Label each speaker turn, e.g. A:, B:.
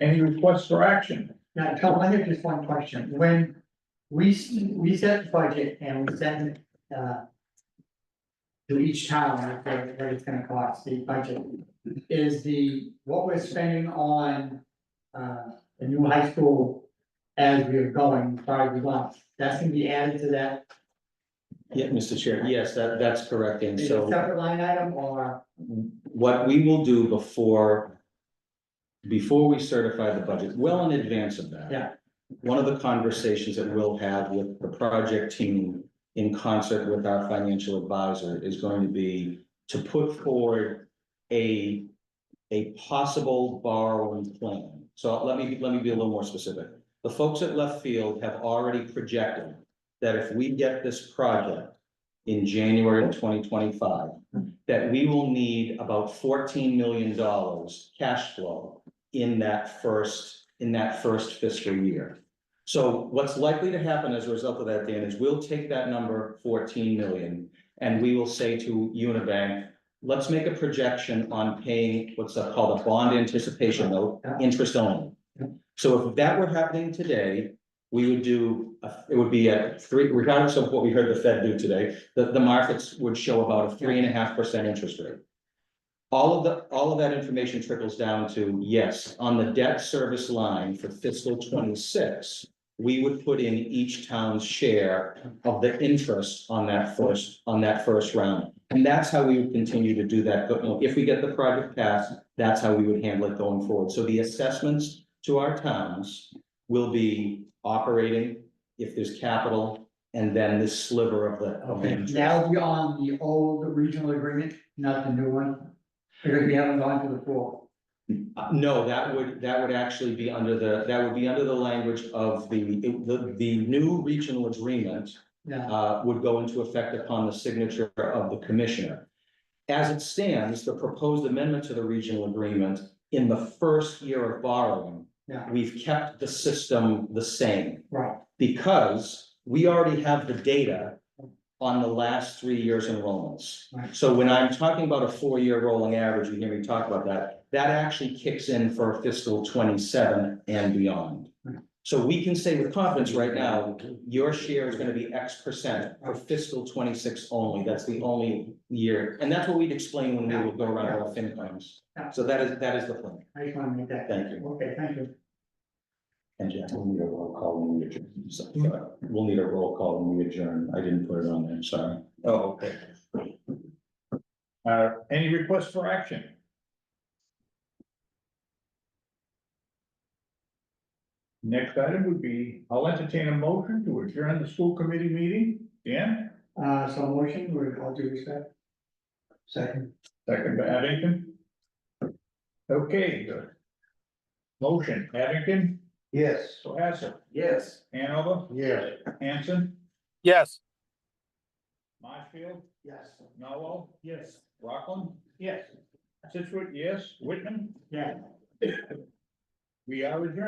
A: Any requests for action?
B: Now, Tom, I have just one question. When we, s- we set the budget and we send, uh. To each town, what, what it's gonna cost, the budget, is the, what we're spending on, uh, the new high school. As we're going, probably months, that's gonna be added to that,
C: Yeah, Mr. Chair, yes, that, that's correct, and
B: is it a
C: so
B: separate line item or?
C: what we will do before. Before we certify the budget, well in advance of that.
B: Yeah.
C: One of the conversations that we'll have with the project team in concert with our financial advisor is going to be to put forward a. A possible borrowing plan, so let me, let me be a little more specific. The folks at Left Field have already projected that if we get this project. In January of twenty twenty-five, that we will need about fourteen million dollars cash flow in that first, in that first fiscal year. So what's likely to happen as a result of that, Dan, is we'll take that number fourteen million and we will say to Unibank, let's make a projection on paying what's called a bond anticipation note, interest only. So if that were happening today, we would do, a- it would be a three, regardless of what we heard the Fed do today, the, the markets would show about a three and a half percent interest rate. All of the, all of that information trickles down to, yes, on the debt service line for fiscal twenty-six, we would put in each town's share of the interest on that first, on that first round. And that's how we would continue to do that. But If we get the project passed, that's how we would handle it going forward. So the assessments to our towns will be operating if there's capital and then this sliver of the. of the interest.
B: That'll be on the old regional agreement, not the new one, because we haven't gone to the full.
C: Uh, No, that would, that would actually be under the, that would be under the language of the, the, the new regional agreement
B: Yeah,
C: uh, would go into effect upon the signature of the commissioner. As it stands, the proposed amendment to the regional agreement in the first year of borrowing,
B: yeah,
C: we've kept the system the same
B: right,
C: because we already have the data on the last three years enrollments.
B: Right.
C: So when I'm talking about a four-year rolling average, you hear me talk about that, that actually kicks in for fiscal twenty-seven and beyond.
B: Right.
C: So we can say with confidence right now, your share is gonna be X percent for fiscal twenty-six only, that's the only year. And that's what we'd explain when we would go around our FinComs.
B: Yeah.
C: So that is, that is the plan,
B: I just wanna make that.
C: thank you.
B: Okay, thank you.
C: And Jack, we'll need a roll call when we adjourn. So, uh, We'll need a roll call when we adjourn. I didn't put it on there, sorry.
A: Oh, okay. Uh, any requests for action? Next item would be, I'll entertain a motion to adjourn the school committee meeting. Dan,
B: Uh, so motion, with all due respect. Second.
A: second by Abington. Okay. good. Motion, Abington,
D: Yes.
A: Cohasset,
D: Yes.
A: Hanover,
D: Yes.
A: Hanson,
E: Yes.
A: Marshfield,
B: Yes.
A: Noel,
B: Yes.
A: Rockland,
B: Yes.
A: Situate, yes, Whitman,
B: Yeah.
A: we are adjourned.